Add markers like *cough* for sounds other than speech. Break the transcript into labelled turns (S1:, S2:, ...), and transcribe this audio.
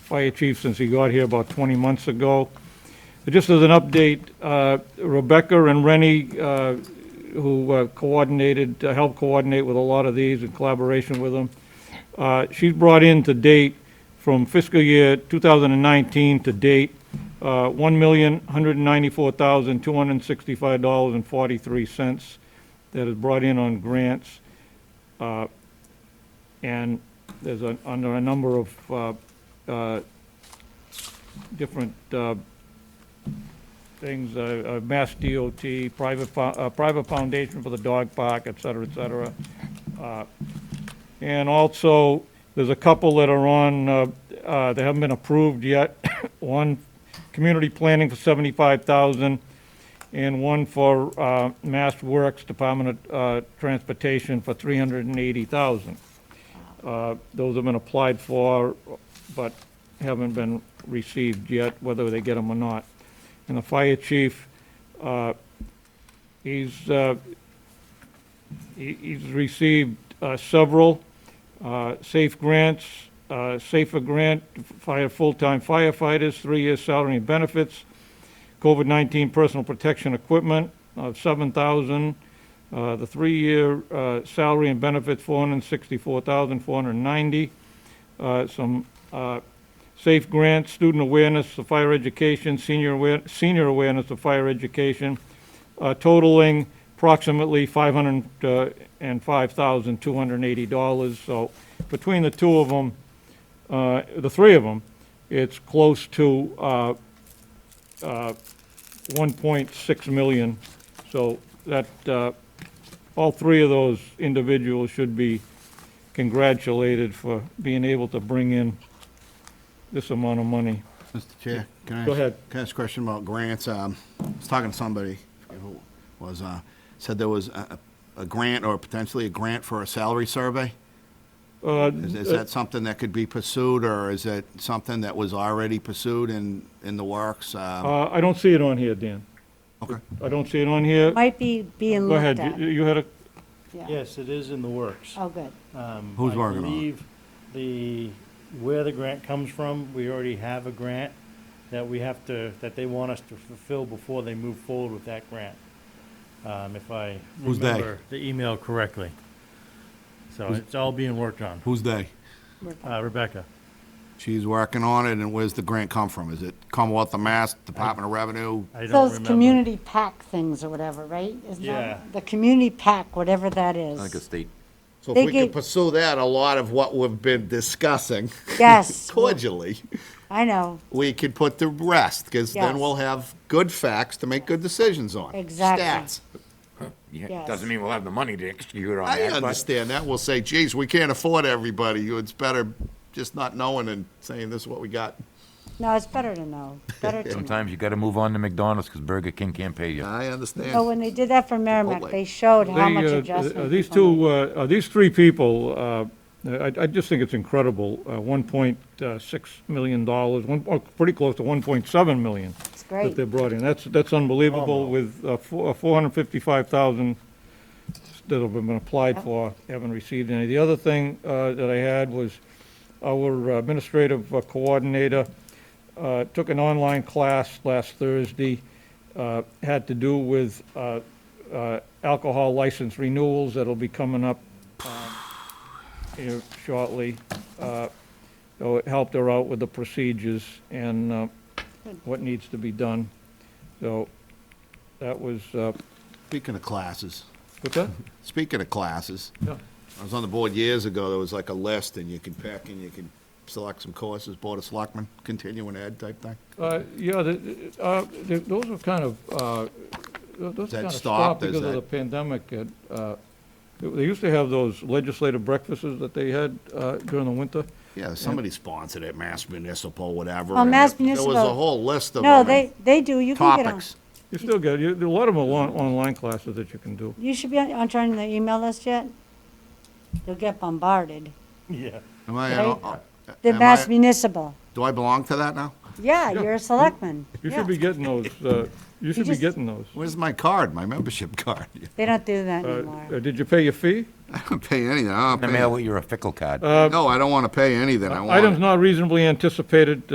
S1: fire chief since he got here about 20 months ago. Just as an update, uh, Rebecca and Rennie, uh, who uh, coordinated, uh, helped coordinate with a lot of these in collaboration with them, uh, she's brought in to date from fiscal year 2019 to date, uh, $1,194,265.43 that is brought in on grants. Uh, And there's a, under a number of uh, uh, different uh, things, uh, uh, Mass DOT, private, fo- uh, private foundation for the dog park, et cetera, et cetera. Uh, And also, there's a couple that are on, uh, uh, that haven't been approved yet. *coughs* One, community planning for 75,000, and one for uh, Mass Works, Department of uh, Transportation for 380,000. Uh, Those have been applied for, but haven't been received yet, whether they get them or not. And the fire chief, uh, he's, uh, he- he's received uh, several uh, safe grants, uh, safer grant, fire, full-time firefighters, three-year salary and benefits, COVID-19 personal protection equipment of 7,000, uh, the three-year uh, salary and benefits, 464,490, uh, some uh, safe grants, student awareness of fire education, senior aware, senior awareness of fire education, uh, totaling approximately uh, $505,280. So between the two of them, uh, the three of them, it's close to uh, uh, 1.6 million. So that, uh, all three of those individuals should be congratulated for being able to bring in this amount of money.
S2: Mr. Chair, can I?
S1: Go
S2: ask-
S1: ahead.
S2: Can I ask a question about grants? Um, I was talking to somebody who was, uh, said there was a, a a grant or potentially a grant for a salary survey?
S1: Uh,
S2: Is, is that something that could be pursued, or is it something that was already pursued in, in the works? Um,
S1: uh, I don't see it on here, Dan.
S2: Okay.
S1: I don't see it on here.
S3: Might be being
S1: Go
S3: looked at.
S1: ahead, You- you had a,
S3: Yeah.
S4: Yes, it is in the works.
S3: Oh, good.
S4: Um,
S2: Who's working on it?
S4: I believe the, where the grant comes from, we already have a grant that we have to, that they want us to fulfill before they move forward with that grant. Um, If I
S2: Who's they?
S4: remember the email correctly. So it's all being worked on.
S2: Who's they?
S4: Uh, Rebecca,
S2: She's working on it, and where's the grant come from? Is it Commonwealth of Mass, Department of Revenue?
S4: I don't
S3: Those
S4: remember.
S3: community pack things or whatever, right? Isn't that-
S4: Yeah.
S3: The community pack, whatever that is.
S5: like a state.
S2: So
S3: They
S2: if we can
S3: gave-
S2: pursue that, a lot of what we've been discussing *laughs*
S3: Yes,
S2: cordially,
S3: I know,
S2: we could put to rest, because then
S3: Yes.
S2: we'll have good facts to make good decisions on.
S3: Exactly.
S2: Stats.
S5: Yeah,
S3: Yes.
S5: doesn't mean we'll have the money to execute on
S2: I
S5: that, but-
S2: understand that. We'll say, geez, we can't afford everybody. It's better just not knowing and saying this is what we got.
S3: no, it's better to know, better to know.
S5: Sometimes you gotta move on to McDonald's, because Burger King can't pay you.
S2: I
S3: So
S2: understand.
S3: when they did that for Merrimack,
S2: Chipotle.
S3: they showed how
S1: They,
S3: much
S1: uh,
S3: adjustment.
S1: uh, These
S3: people
S1: two,
S3: made.
S1: uh, uh, these three people, uh, I I just think it's incredible, uh, $1.6 million, one- oh, pretty close to $1.7 million
S3: It's
S1: that
S3: great.
S1: they brought in. That's, that's unbelievable with uh, four- uh, 455,000 that have been applied for, haven't received any. The other thing uh, that I had was our administrative uh, coordinator uh, took an online class last Thursday, uh, had to do with uh, uh, alcohol license renewals that'll be coming up um, here shortly. Uh, So it helped her out with the procedures and uh, what needs to be done. So that was, uh,
S2: Speaking of classes,
S1: what's that?
S2: speaking of classes, I was on the board years ago. There was like a list and you could pick and you could select some courses, Board of Selectmen, continuing ed type thing.
S1: Uh, Yeah, the- the- uh, the- those were kind of, uh, tho- those
S2: that
S1: kind of stopped
S2: stopped? Is
S1: because of
S2: that-
S1: the pandemic. and, uh, They they used to have those legislative breakfasts that they had uh, during the winter.
S2: Yeah, somebody sponsored it, Mass Municipal, whatever.
S3: Oh,
S2: and
S3: Mass
S2: There was a
S3: Municipal.
S2: whole list of them.
S3: No,
S2: and
S3: they, they do, you can get on.
S2: Topics.
S1: You still get, you- there are a lot of them are on- online classes that you can do.
S3: You should be on, on joining the email list yet? You'll get bombarded.
S4: Yeah.
S2: Am I,
S3: Right.
S2: uh, uh,
S3: The
S2: am
S3: Mass
S2: I-
S3: Municipal,
S2: do I belong to that now?
S3: Yeah, you're a selectman.
S1: You
S3: Yeah.
S1: should be getting those, uh, you should be
S3: just-
S1: getting those.
S2: Where's my card, my membership *laughs* card?
S3: They don't do that
S1: Uh,
S3: anymore.
S1: Did you pay your fee?
S2: I don't pay anything. I
S5: In the
S2: don't
S5: mail Uh,
S2: pay,
S5: with your fickle card.
S2: no, I don't want to pay anything. I want it.
S1: Items not reasonably anticipated